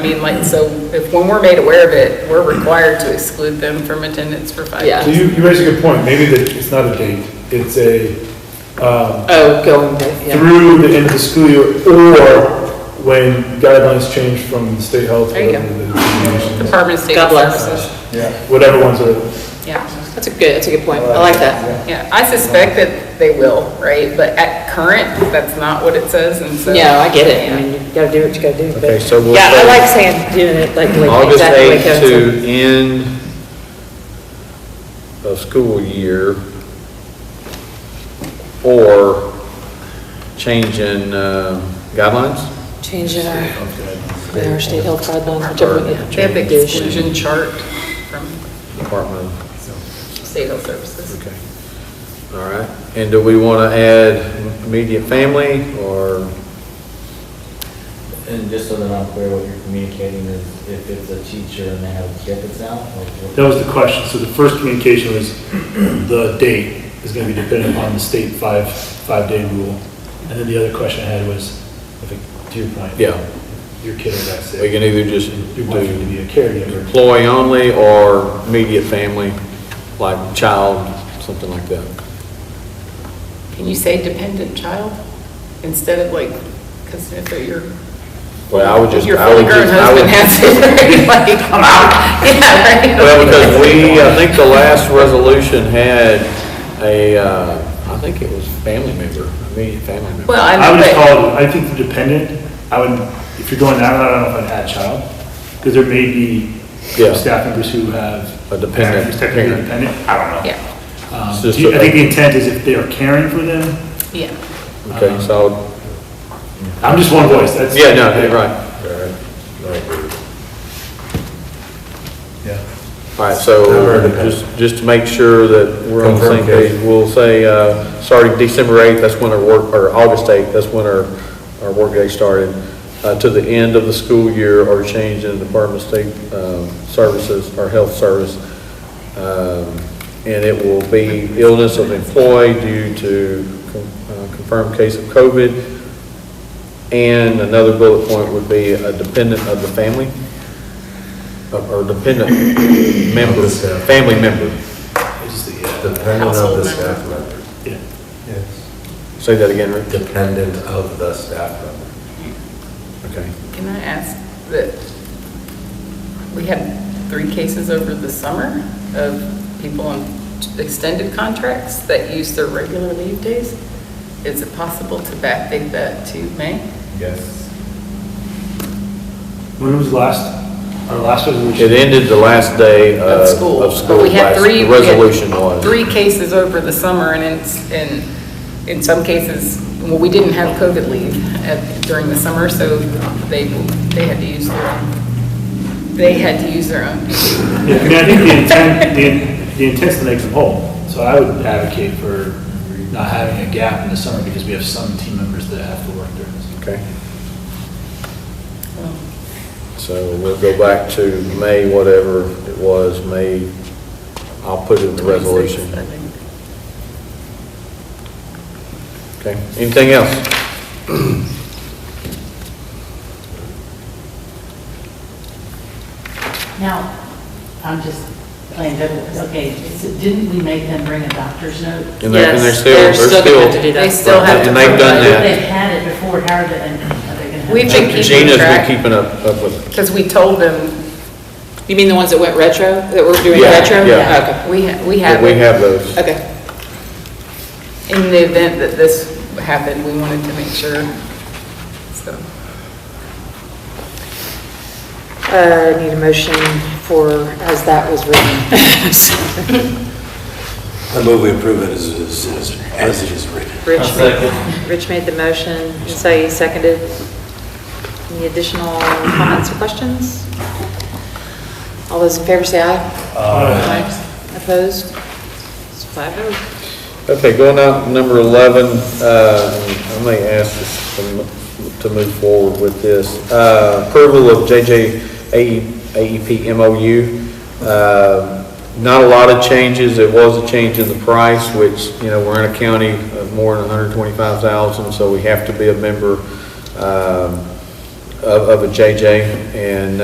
mean, like, so if, when we're made aware of it, we're required to exclude them from attendance for five Yeah. days. So you, you raise a good point, maybe that it's not a date, it's a, um, Oh, going, to- yeah. through the end of the school year, or when guidelines change from state health. There you go. whatever the determination is. Department of State God bless. Services. Yeah. Whatever ones are, Yeah, That's a good, that's a good point. I like that. yeah. I suspect that they will, right? But at current, that's not what it says, and so. No, I get it. I mean, you gotta do what you gotta do. but- Okay, so we'll Yeah, I say- like saying, doing it like, like August exactly like 8th Kevin said. to end of school year, or change in uh, guidelines? Change in our, in our state health guidelines, whichever, Or one, They have yeah. change the exclusion chart from Department of, State Health Services. okay. All right, and do we want to add immediate family, or, And just so that I'm clear, what you're communicating is if it's a teacher and they have a kid that's out, like what? that was the question, so the first communication was, the date is gonna be dependent on the state five, five-day rule. And then the other question I had was, if it- to your point. Yeah. Your kid is at we sick, can either just your wife do need to be a caregiver. employee only, or immediate family, like child, something like that? Can you say dependent child instead of like, because if they're your. Well, I would just, Your I fully would grown just, I would. husband has it, right? like, yeah, right? Well, because we, I think the last resolution had a, uh, I think it was family member, immediate family member. Well, I I would know, just but, call it, I think the dependent, I would, if you're going that route, I don't know if I'd add child, because there may be Yeah. some staff members who have. A dependent parents who's Technically parent. dependent, I don't know. yeah, Um, It's do just you- I a- think the intent is if they are caring for them, yeah. Okay, so, I'm just one voice, that's. yeah, no, you're right. Yeah. All right, so just, just to make sure that we're on the same Confirm, Kate. page, we'll say, uh, starting December 8th, that's when our work, or August 8th, that's when our, our work day started, uh, to the end of the school year or change in the Department of State um, Services, or Health Service. Um, And it will be illness of employee due to con- uh, confirmed case of COVID. And another bullet point would be a dependent of the family or dependent member, family member. It's just the, uh, Dependent of Household the member. staff member. yeah. Yes. Say that again, Rick. Dependent of the staff member. Okay. Can I ask that, we had three cases over the summer of people on extended contracts that use their regular leave days. Is it possible to backdate that to May? Yes. When was the last, our last resolution? It ended the last day of, Of school. Uh, of school. But we had last- three. The we had resolution was. Three cases over the summer, and it's, and in some cases, well, we didn't have COVID leave at- during the summer, so they, they had to use their, own. they had to use their own. Yeah, I mean, I think the intent, the in- the intent's to make them whole, so I would advocate for not having a gap in the summer because we have some team members that have to work during the summer. Okay. So we'll go back to May, whatever it was, May, I'll put it in the resolution. I think. Okay, anything else? Now, I'm just playing devil's, okay, so didn't we make them bring a doctor's note? And they're- and they're Yes, still- they're they're still gonna have to do that. They still have to. And they've done provide- that. They've had it before, how are they, are they gonna? have We've it? been keeping Gina's been track. keeping up, up with it. Because we told them, You mean the ones that went retro, that were doing Yeah, retro? yeah. we, ha- we But have, We in have those. Okay, okay. the event that this happened, we wanted to make sure, so. Uh, need a motion for, as that was written. I move we approve it as, as, as- as it is written. Rich I'll made, Rich made the motion, and so you seconded. Any additional comments or questions? All those in favor say aye. Oh. Aye. Opposed? It's five oh. Okay, going out to number 11, uh, I may ask this to mo- to move forward with this. Uh, Approval of JJ E, AEP MOU. Uh, Not a lot of changes. There was a change in the price, which, you know, we're in a county of more than 125,000, so we have to be a member um, of of a JJ. And